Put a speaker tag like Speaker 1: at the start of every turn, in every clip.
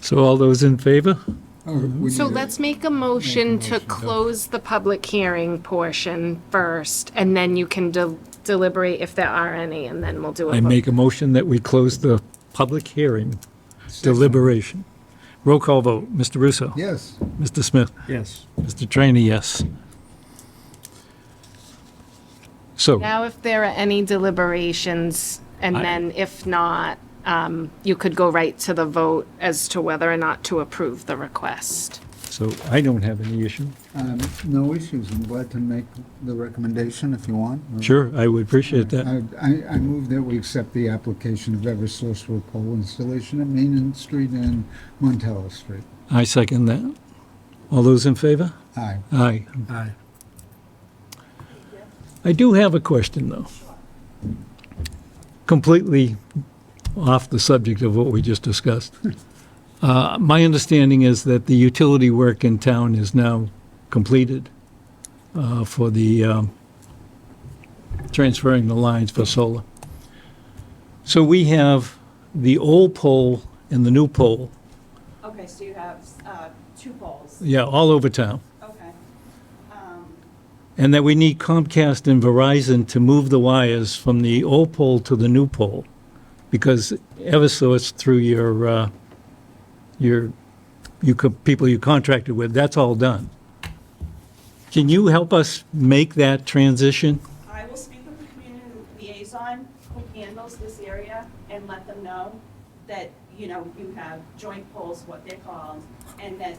Speaker 1: So all those in favor?
Speaker 2: Oh,
Speaker 3: So let's make a motion to close the public hearing portion first, and then you can de- deliberate if there are any, and then we'll do a
Speaker 1: I
Speaker 3: vote.
Speaker 1: make a motion that we close the public hearing deliberation. Roll call vote. Mr. Russo?
Speaker 2: Yes.
Speaker 1: Mr. Smith?
Speaker 4: Yes.
Speaker 1: Mr. Trainee, yes. So,
Speaker 3: Now, if there are any deliberations, and
Speaker 1: I-
Speaker 3: then if not, um, you could go right to the vote as to whether or not to approve the request.
Speaker 1: so I don't have any issue.
Speaker 2: Um, No issues. I'm glad to make the recommendation if you want.
Speaker 1: Sure, I would appreciate that.
Speaker 2: I, I- I move that we accept the application of Eversource for pole installation at Main Street and Montella Street.
Speaker 1: I second that. All those in favor?
Speaker 2: Aye.
Speaker 1: Aye.
Speaker 4: Aye.
Speaker 1: I do have a question, though. Completely off the subject of what we just discussed. Uh, My understanding is that the utility work in town is now completed uh, for the um, transferring the lines for solar. So we have the old pole and the new pole,
Speaker 5: Okay, so you have uh, two poles,
Speaker 1: yeah, all over town.
Speaker 5: okay. Um,
Speaker 1: And that we need Comcast and Verizon to move the wires from the old pole to the new pole, because Eversource through your, uh, your, you, co- people you contracted with, that's all done. Can you help us make that transition?
Speaker 5: I will speak with the community liaison who handles this area and let them know that, you know, you have joint poles, what they're called, and that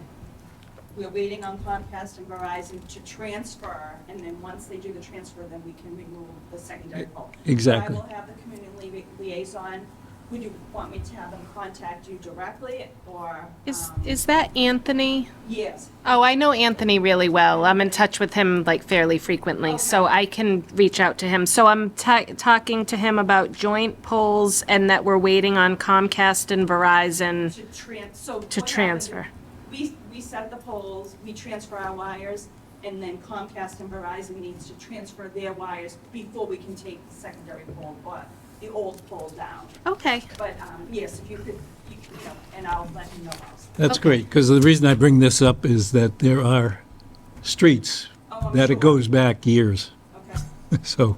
Speaker 5: we're waiting on Comcast and Verizon to transfer, and then once they do the transfer, then we can remove the secondary pole.
Speaker 1: Exactly.
Speaker 5: I will have the community li- liaison, would you want me to have them contact you directly, or?
Speaker 3: Is,
Speaker 5: um,
Speaker 3: is that Anthony?
Speaker 5: Yes,
Speaker 3: Oh, I know Anthony really well. I'm in touch with him like fairly frequently, so I can reach out to him. So I'm ta- talking to him about joint polls and that we're waiting on Comcast and Verizon.
Speaker 5: to trans,
Speaker 3: To
Speaker 5: so. what happened
Speaker 3: transfer.
Speaker 5: is We, we set the poles, we transfer our wires, and then Comcast and Verizon needs to transfer their wires before we can take the secondary pole, or the old pole down.
Speaker 3: Okay.
Speaker 5: But, um, yes, if you could, you could, you know, and I'll let you know also.
Speaker 1: That's great, because the reason I bring this up is that there are streets
Speaker 5: Oh, I'm
Speaker 1: that it
Speaker 5: sure.
Speaker 1: goes back years.
Speaker 5: Okay,
Speaker 1: So,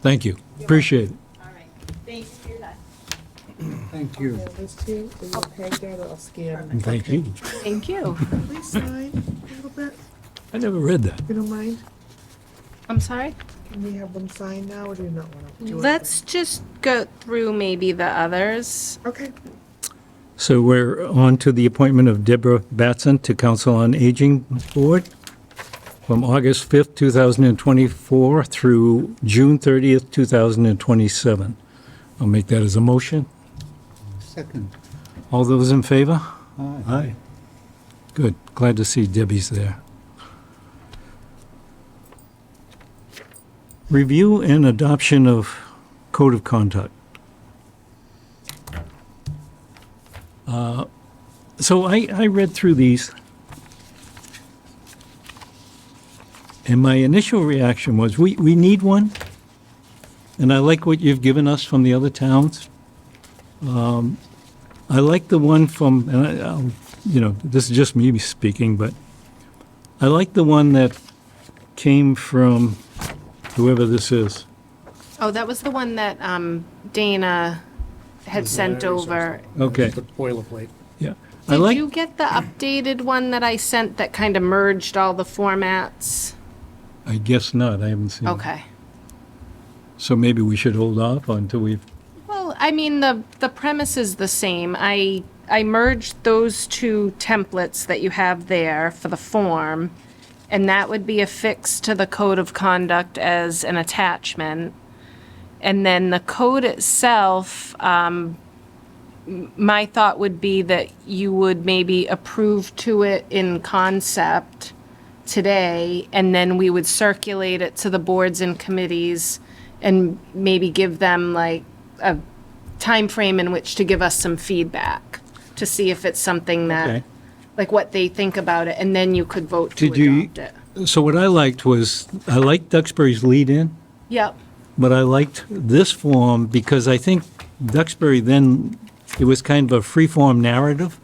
Speaker 1: thank you. Appreciate it.
Speaker 5: all right. Thank you for your time.
Speaker 2: Thank you.
Speaker 6: Yeah, those two, and we'll peg that off, scan them.
Speaker 1: And thank you.
Speaker 3: Thank you.
Speaker 6: Please sign a little bit,
Speaker 1: I never read that.
Speaker 6: if you don't mind.
Speaker 3: I'm sorry?
Speaker 6: Can we have them sign now, or do you not want to?
Speaker 3: Let's just go through maybe the others.
Speaker 6: Okay,
Speaker 1: So we're on to the appointment of Deborah Batson to Council on Aging Board from August 5th, 2024 through June 30th, 2027. I'll make that as a motion.
Speaker 2: Second.
Speaker 1: All those in favor?
Speaker 2: Aye.
Speaker 1: Aye. Good. Glad to see Debbie's there. Review and adoption of code of conduct. Uh, So I, I read through these. And my initial reaction was, we, we need one. And I like what you've given us from the other towns. Um, I like the one from, and I, I'll, you know, this is just me speaking, but I like the one that came from whoever this is.
Speaker 3: Oh, that was the one that um, Dana had sent over.
Speaker 1: Okay,
Speaker 4: The boilerplate.
Speaker 1: yeah. I
Speaker 3: Did
Speaker 1: like,
Speaker 3: you get the updated one that I sent that kind of merged all the formats?
Speaker 1: I guess not, I haven't seen it.
Speaker 3: Okay.
Speaker 1: So maybe we should hold off until we've,
Speaker 3: Well, I mean, the, the premise is the same. I, I merged those two templates that you have there for the form, and that would be affixed to the code of conduct as an attachment. And then the code itself, um, m- my thought would be that you would maybe approve to it in concept today, and then we would circulate it to the boards and committees and maybe give them like a time frame in which to give us some feedback to see if it's something that,
Speaker 1: Okay.
Speaker 3: like what they think about it, and then you could vote to
Speaker 1: Did you-
Speaker 3: adopt it.
Speaker 1: so what I liked was, I liked Duxbury's lead-in,
Speaker 3: Yep,
Speaker 1: but I liked this form because I think Duxbury then, it was kind of a free-form narrative.